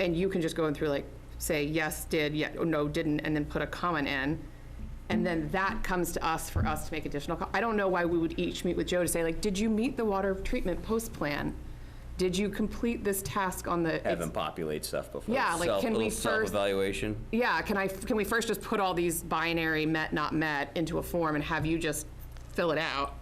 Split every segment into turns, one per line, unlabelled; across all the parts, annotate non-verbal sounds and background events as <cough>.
and you can just go in through like, say, yes, did, yeah, or no, didn't, and then put a comment in. And then that comes to us for us to make additional, co- I don't know why we would each meet with Joe to say like, did you meet the water treatment post plan? Did you complete this task on the?
Have them populate stuff before.
Yeah, like,
Self-
can we
little
first-
Self-evaluation.
Yeah, can I, can we first just put all these binary met, not met into a form and have you just fill it out?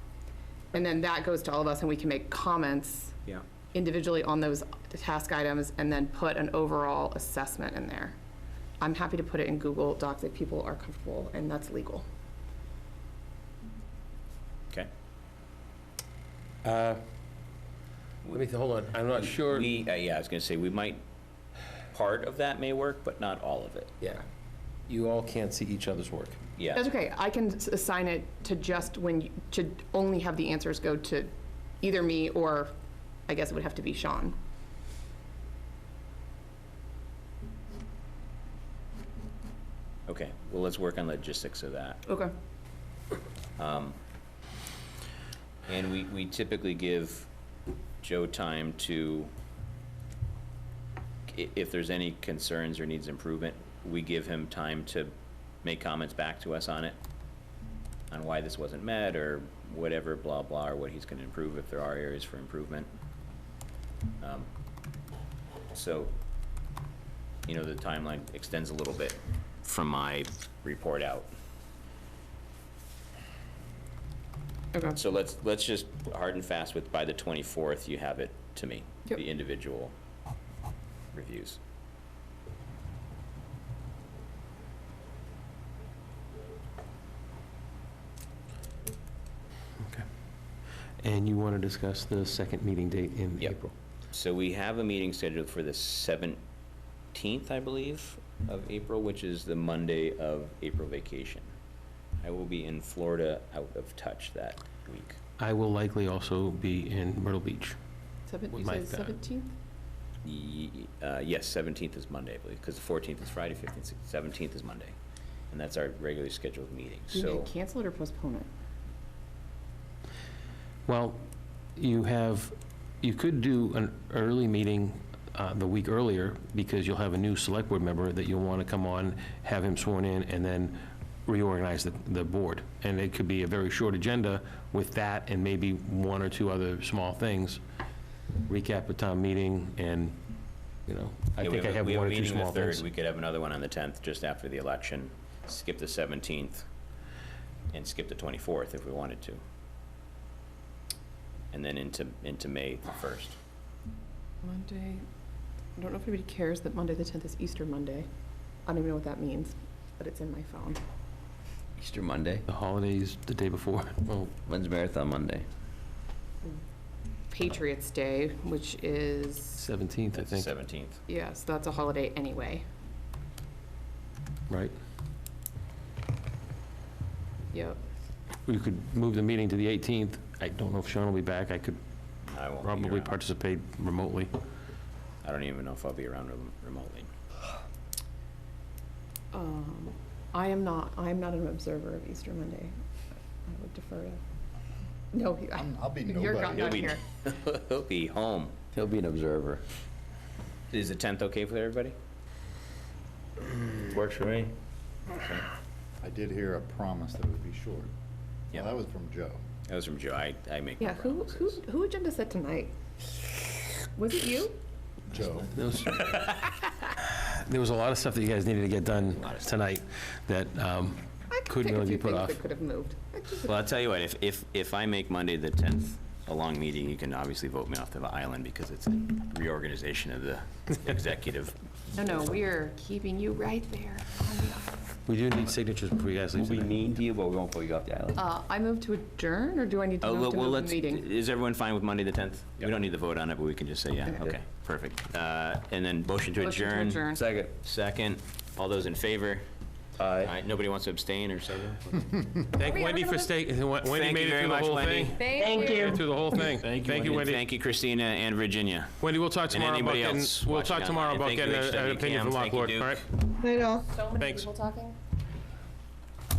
And then that goes to all of us and we can make comments
Yeah.
individually on those task items and then put an overall assessment in there. I'm happy to put it in Google Docs if people are comfortable and that's legal.
Okay.
Let me, th- hold on, I'm not sure.
We, uh, yeah, I was gonna say, we might, part of that may work, but not all of it.
Yeah, you all can't see each other's work.
Yeah.
That's okay, I can s- assign it to just when, you- to only have the answers go to either me or, I guess it would have to be Sean.
Okay, well, let's work on logistics of that.
Okay.
And we, we typically give Joe time to, i- if there's any concerns or needs improvement, we give him time to make comments back to us on it, on why this wasn't met, or whatever, blah, blah, or what he's gonna improve, if there are areas for improvement. Um, So, you know, the timeline extends a little bit from my report out.
Okay.
So let's, let's just hard and fast with, by the 24th, you have it to me,
Yep.
the individual reviews.
And you want to discuss the second meeting date in
Yep.
April?
So we have a meeting scheduled for the 17th, I believe, of April, which is the Monday of April vacation. I will be in Florida out of touch that week.
I will likely also be in Myrtle Beach.
Seven-
With
You
my
said
thought.
seventeenth?
Ye- uh, Yes, 17th is Monday, I believe, because the 14th is Friday, 15th, 17th is Monday. And that's our regularly scheduled meeting,
Do you
so.
need to cancel it or postpone it?
Well, you have, you could do an early meeting uh, the week earlier, because you'll have a new select board member that you'll want to come on, have him sworn in, and then reorganize the, the board. And it could be a very short agenda with that and maybe one or two other small things. Recap the town meeting and, you know, I
Yeah, we
think I
a-
have
we a
one or two
meeting the
small
3rd.
things.
We could have another one on the 10th, just after the election, skip the 17th, and skip the 24th if we wanted to. And then into, into May the 1st.
Monday, I don't know if anybody cares that Monday, the 10th is Easter Monday. I don't even know what that means, but it's in my phone.
Easter Monday.
The holidays the day before, <laughs> well,
When's Marathon Monday?
Patriots Day, which is,
17th, I
That's the
think,
17th.
yes, that's a holiday anyway.
right?
Yep.
We could move the meeting to the 18th. I don't know if Sean will be back. I could
I won't be
probably
around.
participate remotely.
I don't even know if I'll be around rem- remotely.
Um, I am not, I am not an observer of Easter Monday. I would defer to, no, he- I-
I'm- I'll be
<laughs> you're
nobody.
not
He'll
not
be-
here.
He'll be home.
He'll be an observer.
Is the 10th okay for everybody?
Works for me.
I did hear a promise that it would be short.
Yeah.
Well, that was from Joe.
That was from Joe. I, I make no
Yeah, who, who,
promises.
who agenda set tonight? Was it you?
Joe,
There was- there was a lot of stuff that you guys needed to get done tonight that um,
I could
couldn't
pick a
really be
few
put
things
off.
that Could have moved.
Well, I'll tell you what, if, if, if I make Monday the 10th a long meeting, you can obviously vote me off the island because it's a reorganization of
<laughs>
the executive.
No, no, we're keeping you right there on the
We do need signatures before you guys leave
We'll be
tonight.
mean to you, but we won't pull you off the island.
Uh, I move to adjourn, or do I need to
Oh,
move
look,
to
well,
move
let's,
the meeting?
is everyone fine with Monday the 10th? We don't need to vote on it, but we can just say, yeah,
Okay.
okay, perfect. Uh, And then motion to
Motion to
adjourn.
adjourn.
Second.
Second, all those in favor? All right, nobody wants to abstain or say? no?
Thank
Are we
Wendy
ever
for
gonna-
staying, Wendy
Thank
made
you very
it through the
much,
whole
Wendy.
thing.
Thank
Made it Through the whole thing. Thank you, Wendy.
Thank you, Christina and Virginia.
Wendy, we'll talk tomorrow about
anybody
getting,
else
we'll
watching
talk tomorrow
online.
about
Thank you,
getting a- an
HWCAM.
opinion from
Thank you,
Lockwood, all
Duke.
right?
So many
Thanks.
people talking.